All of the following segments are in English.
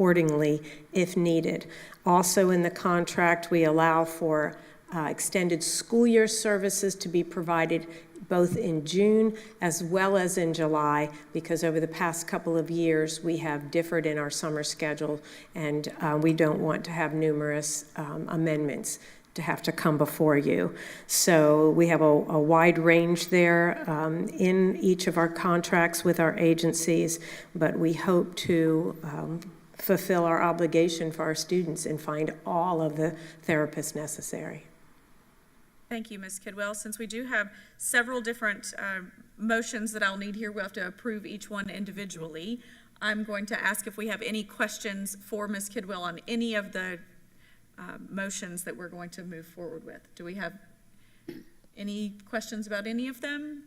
accordingly if needed. Also, in the contract, we allow for uh, extended school year services to be provided both in June as well as in July, because over the past couple of years, we have differed in our summer schedule, and uh, we don't want to have numerous um, amendments to have to come before you. So we have a, a wide range there um, in each of our contracts with our agencies, but we hope to um, fulfill our obligation for our students and find all of the therapists necessary. Thank you, Ms. Kidwell. Since we do have several different uh, motions that I'll need here, we'll have to approve each one individually. I'm going to ask if we have any questions for Ms. Kidwell on any of the uh, motions that we're going to move forward with. Do we have any questions about any of them?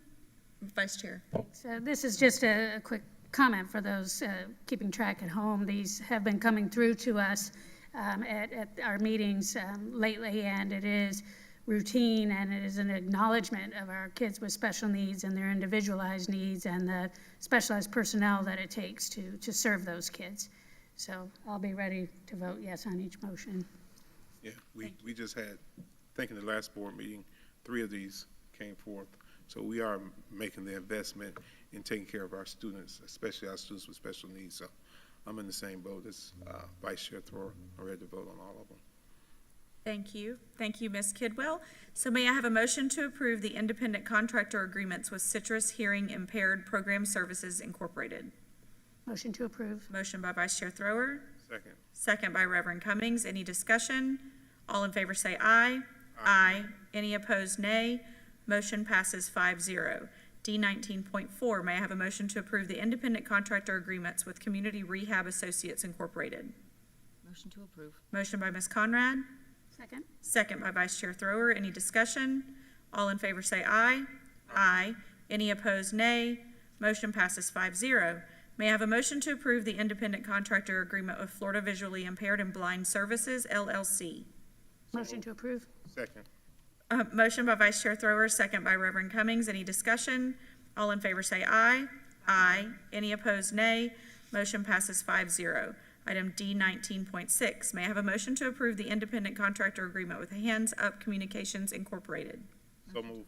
Vice Chair? So this is just a a quick comment for those uh, keeping track at home. These have been coming through to us um, at at our meetings um, lately, and it is routine, and it is an acknowledgement of our kids with special needs and their individualized needs and the specialized personnel that it takes to, to serve those kids. So I'll be ready to vote yes on each motion. Yeah, we, we just had, I think in the last board meeting, three of these came forth. So we are making the investment in taking care of our students, especially our students with special needs. So I'm in the same boat as uh, Vice Chair Thor. I'm ready to vote on all of them. Thank you. Thank you, Ms. Kidwell. So may I have a motion to approve the independent contractor agreements with Citrus Hearing Impaired Program Services Incorporated? Motion to approve. Motion by Vice Chair Thrower, Second. second by Reverend Cummings. Any discussion? All in favor say aye. Aye. Any opposed, nay. Motion passes 5-0. D nineteen point four, may I have a motion to approve the independent contractor agreements with Community Rehab Associates Incorporated? Motion to approve. Motion by Ms. Conrad, Second. Second by Vice Chair Thrower. Any discussion? All in favor say aye. Aye. Any opposed, nay. Motion passes 5-0. May I have a motion to approve the independent contractor agreement with Florida Visually Impaired and Blind Services LLC? Motion to approve. Second. Uh, motion by Vice Chair Thrower, second by Reverend Cummings. Any discussion? All in favor say aye. Aye. Any opposed, nay. Motion passes 5-0. Item D nineteen point six, may I have a motion to approve the independent contractor agreement with Hands Up Communications Incorporated? So move.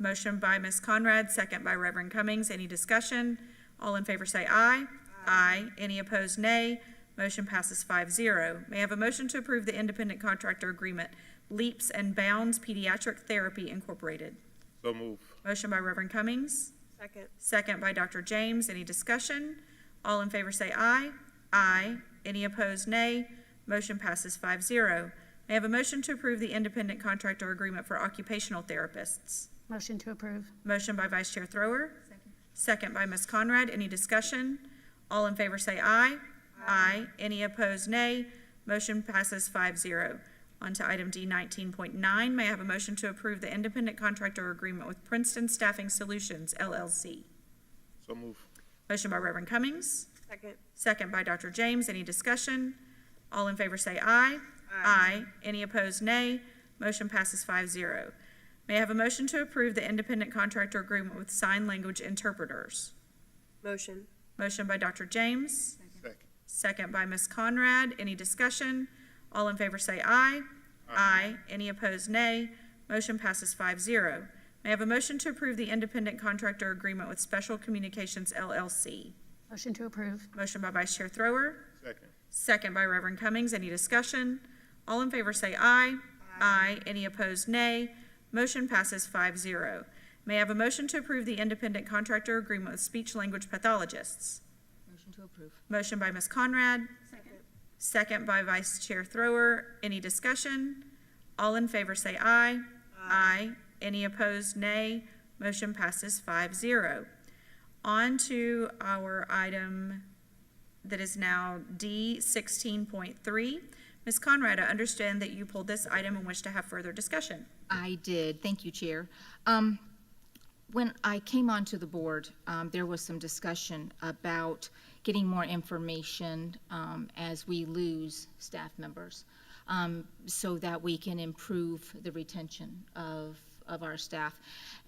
Motion by Ms. Conrad, second by Reverend Cummings. Any discussion? All in favor say aye. Aye. Any opposed, nay. Motion passes 5-0. May I have a motion to approve the independent contractor agreement, Leaps and Bounds Pediatric Therapy Incorporated? So move. Motion by Reverend Cummings. Second. Second by Dr. James. Any discussion? All in favor say aye. Aye. Any opposed, nay. Motion passes 5-0. May I have a motion to approve the independent contractor agreement for occupational therapists? Motion to approve. Motion by Vice Chair Thrower. Second by Ms. Conrad. Any discussion? All in favor say aye. Aye. Any opposed, nay. Motion passes 5-0. On to item D nineteen point nine. May I have a motion to approve the independent contractor agreement with Princeton Staffing Solutions LLC? So move. Motion by Reverend Cummings. Second. Second by Dr. James. Any discussion? All in favor say aye. Aye. Any opposed, nay. Motion passes 5-0. May I have a motion to approve the independent contractor agreement with sign language interpreters? Motion. Motion by Dr. James. Second. Second by Ms. Conrad. Any discussion? All in favor say aye. Aye. Any opposed, nay. Motion passes 5-0. May I have a motion to approve the independent contractor agreement with Special Communications LLC? Motion to approve. Motion by Vice Chair Thrower. Second. Second by Reverend Cummings. Any discussion? All in favor say aye. Aye. Any opposed, nay. Motion passes 5-0. May I have a motion to approve the independent contractor agreement with speech language pathologists? Motion to approve. Motion by Ms. Conrad. Second. Second by Vice Chair Thrower. Any discussion? All in favor say aye. Aye. Any opposed, nay. Motion passes 5-0. On to our item that is now D sixteen point three. Ms. Conrad, I understand that you pulled this item and wish to have further discussion. I did, thank you, Chair. Um, When I came onto the board, um, there was some discussion about getting more information um, as we lose staff members, um, so that we can improve the retention of of our staff.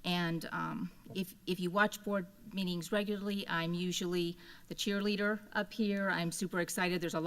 And um, if, if you watch board meetings regularly, I'm usually the cheerleader up here. I'm super excited. There's a lot.